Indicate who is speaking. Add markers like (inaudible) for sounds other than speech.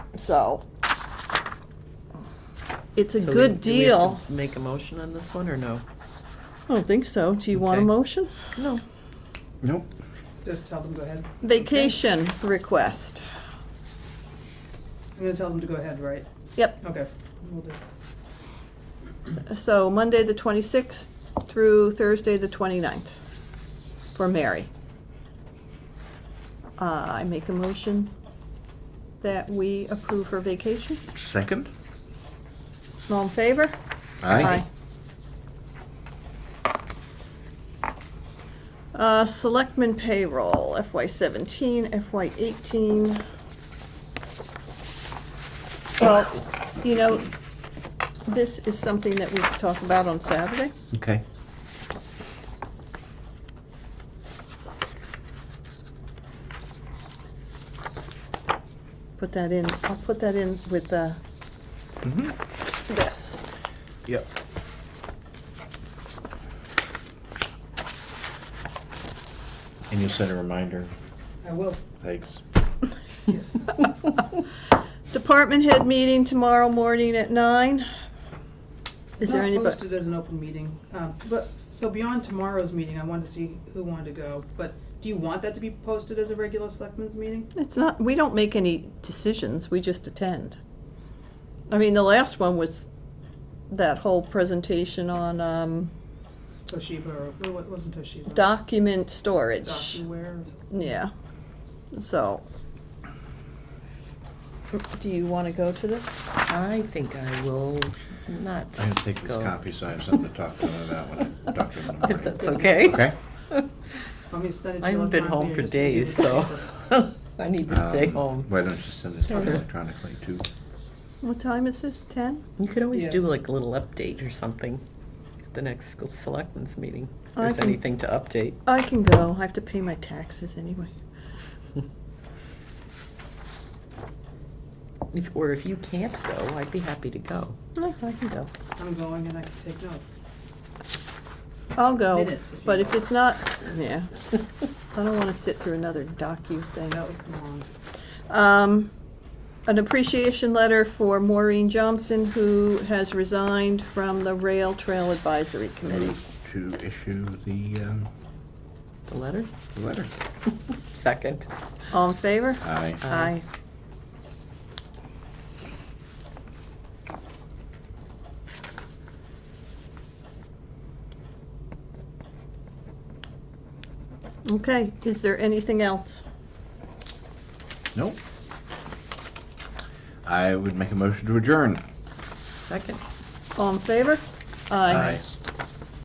Speaker 1: so. It's a
Speaker 2: So we-
Speaker 1: good
Speaker 2: do we have to
Speaker 1: deal.
Speaker 2: Make a motion on this one, or no?
Speaker 1: I don't think so. Do you want a
Speaker 2: Okay.
Speaker 1: motion?
Speaker 2: No.
Speaker 3: Nope.
Speaker 4: Just tell them, go ahead.
Speaker 1: Vacation request.
Speaker 4: I'm gonna tell them to go ahead, right?
Speaker 1: Yep,
Speaker 4: Okay. We'll do.
Speaker 1: so Monday, the twenty-sixth through Thursday, the 29th, for Mary. Uh, I make a motion that we approve her vacation.
Speaker 3: Second?
Speaker 1: All in favor?
Speaker 3: Aye.
Speaker 1: Uh, selectmen payroll FY seventeen, FY eighteen. Well, you know, this is something that we could talk about on Saturday.
Speaker 3: Okay.
Speaker 1: Put that in, I'll put that in with, uh, this.
Speaker 3: Mm-hmm. Yep. And you'll send a reminder.
Speaker 2: (laughs)
Speaker 4: I will,
Speaker 3: Thanks.
Speaker 4: yes.
Speaker 1: Department head meeting tomorrow morning at nine. Is there
Speaker 4: Not
Speaker 1: anybody?
Speaker 4: Posted as an open meeting, um, but, so beyond tomorrow's meeting, I wanted to see who wanted to go, but do you want that to be posted as a regular selectmen's meeting?
Speaker 1: It's not, we don't make any decisions, we just attend. I mean, the last one was that whole presentation on, um,
Speaker 4: Toshiba, or, no, it wasn't Toshiba.
Speaker 1: document storage.
Speaker 4: DocuWare.
Speaker 1: Yeah, so. Do you wanna go to this?
Speaker 2: I think I will not
Speaker 3: I didn't think this
Speaker 2: Go.
Speaker 3: copy, so I have something to talk to her about when I talk to her in the
Speaker 2: (laughs) If
Speaker 3: morning.
Speaker 2: that's okay. (laughs)
Speaker 3: Okay?
Speaker 4: Want me to send it to
Speaker 2: I haven't been home
Speaker 4: electronically or
Speaker 2: for
Speaker 4: just give you
Speaker 2: days,
Speaker 4: the
Speaker 2: so (laughs)
Speaker 4: paper?
Speaker 2: I need to stay
Speaker 3: Um,
Speaker 2: home.
Speaker 3: Why don't you send this out electronically too?
Speaker 1: What time is this, ten?
Speaker 2: You could always do
Speaker 4: Yes.
Speaker 2: like a little update or something at the next school selectmen's meeting. If
Speaker 1: I
Speaker 2: there's
Speaker 1: can-
Speaker 2: anything to update. (laughs)
Speaker 1: I can go, I have to pay my taxes anyway.
Speaker 2: If, or if you can't go, I'd be happy to go. (laughs)
Speaker 1: No, I can go.
Speaker 4: I'm going and I can take notes.
Speaker 1: I'll go,
Speaker 4: Minutes if you
Speaker 1: but if
Speaker 4: want.
Speaker 1: it's not, yeah, I don't wanna sit through another docu thing.
Speaker 4: That was long.
Speaker 1: Um, an appreciation letter for Maureen Johnson, who has resigned from the Rail Trail Advisory Committee.
Speaker 3: Move To issue the, um,
Speaker 2: The letter?
Speaker 3: the letter.
Speaker 2: Second.
Speaker 1: All in favor?
Speaker 3: Aye.
Speaker 1: Aye. Okay, is there anything else?
Speaker 3: Nope. I would make a motion to adjourn.
Speaker 2: Second.
Speaker 1: All in favor? Aye.
Speaker 3: Aye.